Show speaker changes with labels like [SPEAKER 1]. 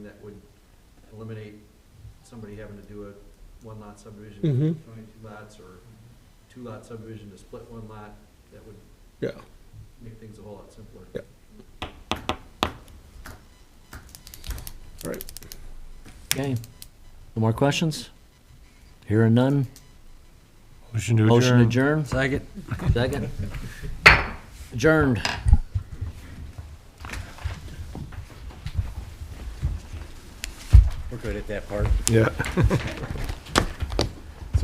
[SPEAKER 1] that would eliminate somebody having to do a one lot subdivision,
[SPEAKER 2] Mhm.
[SPEAKER 1] twenty-two lots, or two lot subdivision to split one lot, that would
[SPEAKER 2] Yeah,
[SPEAKER 1] make things a whole lot simpler.
[SPEAKER 2] Yeah. all right.
[SPEAKER 3] Okay. No more questions? Hearing none?
[SPEAKER 4] Motion to
[SPEAKER 3] Motion
[SPEAKER 4] adjourn.
[SPEAKER 3] adjourned? Second. Second. Adjourned.
[SPEAKER 5] We're good at that part.
[SPEAKER 2] Yeah.